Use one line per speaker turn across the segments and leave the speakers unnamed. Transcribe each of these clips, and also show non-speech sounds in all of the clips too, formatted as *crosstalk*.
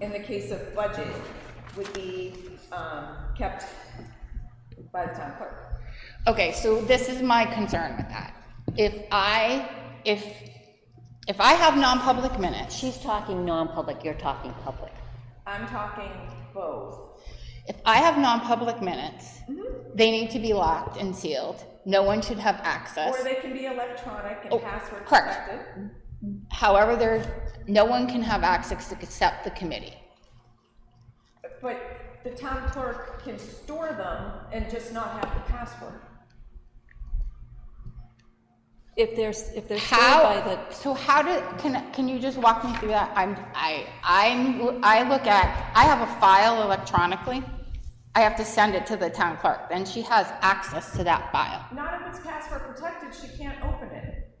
in the case of budget, would be, um, kept by the town clerk.
Okay, so this is my concern with that. If I, if, if I have non-public minutes,
She's talking non-public, you're talking public.
I'm talking both.
if I have non-public minutes,
Mm-hmm.
they need to be locked and sealed. No one should have access.
Or they can be electronic
Oh,
and password
correct.
protected.
However, there, no one can have access except the committee.
But the town clerk can store them and just not have the password.
If there's, if they're stored
How,
by the,
so how do, can, can you just walk me through that? I'm, I, I'm, I look at, I have a file electronically. I have to send it to the town clerk, then she has access to that file.
Not if it's password protected, she can't open it.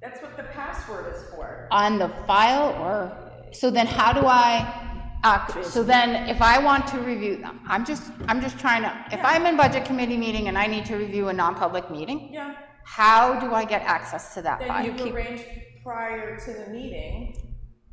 That's what the password is for.
on the file or, so then how do I, uh, so then if I want to review them, I'm just, I'm just trying to, if I'm in budget committee meeting and I need to review a non-public meeting,
Yeah,
how do I get access to that
then
file?
you arrange prior to the meeting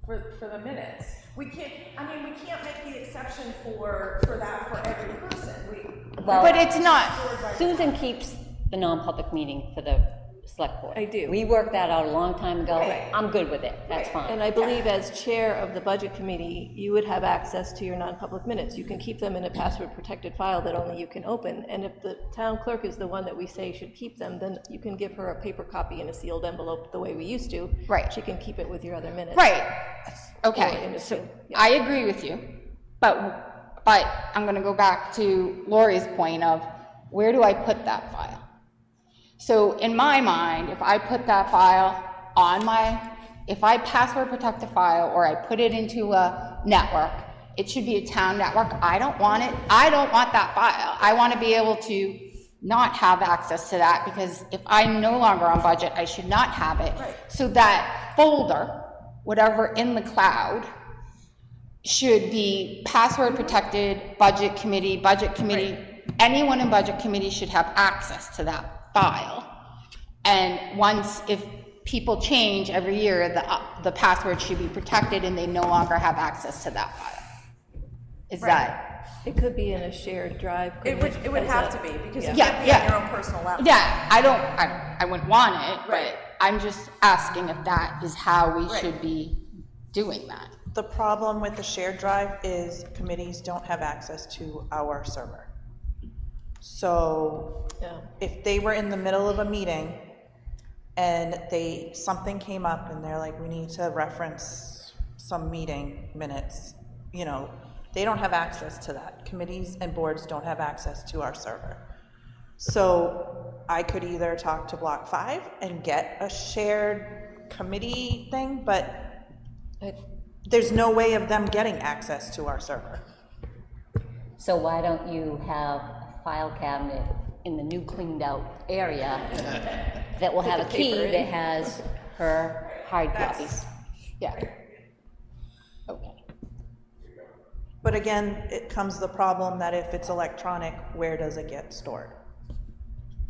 for, for the minutes. We can't, I mean, we can't make the exception for, for that for every person. We,
But
Well,
it's not,
Susan keeps the non-public meeting for the select board.
I do.
We worked that out a long time ago. I'm good with it, that's
and
fine.
I believe as chair of the budget committee, you would have access to your non-public minutes. You can keep them in a password-protected file that only you can open, and if the town clerk is the one that we say should keep them, then you can give her a paper copy in a sealed envelope, the way we used to.
Right.
She can keep it with your other minutes.
right,
Or in
okay,
a
so
suit, yeah.
I agree with you, but, but I'm gonna go back to Lori's point of, where do I put that file? So in my mind, if I put that file on my, if I password protect the file or I put it into a network, it should be a town network. I don't want it, I don't want that file. I want to be able to not have access to that because if I'm no longer on budget, I should not have it. So that folder, whatever in the cloud, should be password protected, budget committee, budget committee, anyone in budget committee should have access to that file. And once, if people change every year, the, uh, the password should be protected and they no longer have access to that file. Is that,
It could be in a shared drive.
it
couldn't
would, it would
as
have
a-
to be, because you
Yeah,
can't be on
yeah.
your own personal laptop.
yeah, I don't, I, I wouldn't want it,
Right.
but I'm just asking if that is how we should be doing that.
The problem with the shared drive is committees don't have access to our server. So
Yeah.
if they were in the middle of a meeting and they, something came up and they're like, we need to reference some meeting minutes, you know, they don't have access to that. Committees and boards don't have access to our server. So I could either talk to Block Five and get a shared committee thing, but
I-
there's no way of them getting access to our server.
So why don't you have a file cabinet in the new cleaned-out
*laughs*
area that will have a key that has her hard copies?
Yeah. Okay.
But again, it comes the problem that if it's electronic, where does it get stored?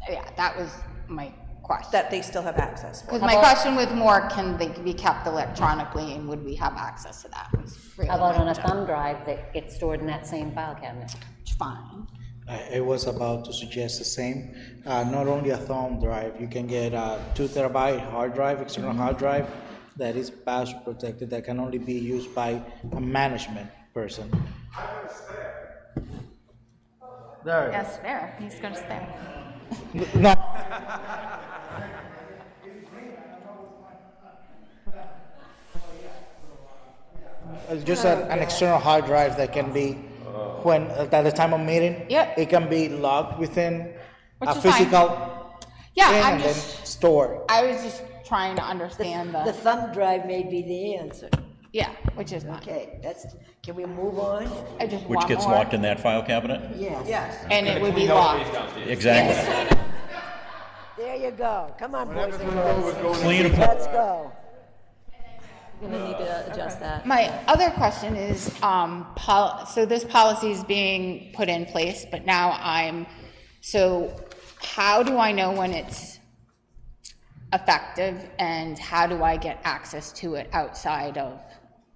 Yeah, that was my question.
That they still have access for.
Because my question was more, can they be kept electronically and would we have access to that? was really
How about
my
on a
job.
thumb drive that gets stored in that same file cabinet?
Fine.
I, I was about to suggest the same. Uh, not only a thumb drive, you can get a two terabyte hard drive, external hard drive, that is password protected, that can only be used by a management person. There.
Yes, there, he's gonna stay.
*laughs* No. Uh, Just an, an external hard drive that can be, when, at the time of meeting.
Yep.
It can be logged within
Which
a
is fine.
physical
Yeah,
thing
I'm
and then
just,
stored.
I was just trying to understand
The
the,
thumb drive may be the answer.
yeah, which is not,
Okay, that's, can we move on?
I just want
Which
more.
gets locked in that file cabinet?
Yes.
And it would be locked.
Exactly.
There you go. Come on, boys and girls.
Clean
Let's go.
We're gonna need to adjust that.
My other question is, um, pol, so this policy is being put in place, but now I'm, so how do I know when it's effective and how do I get access to it outside of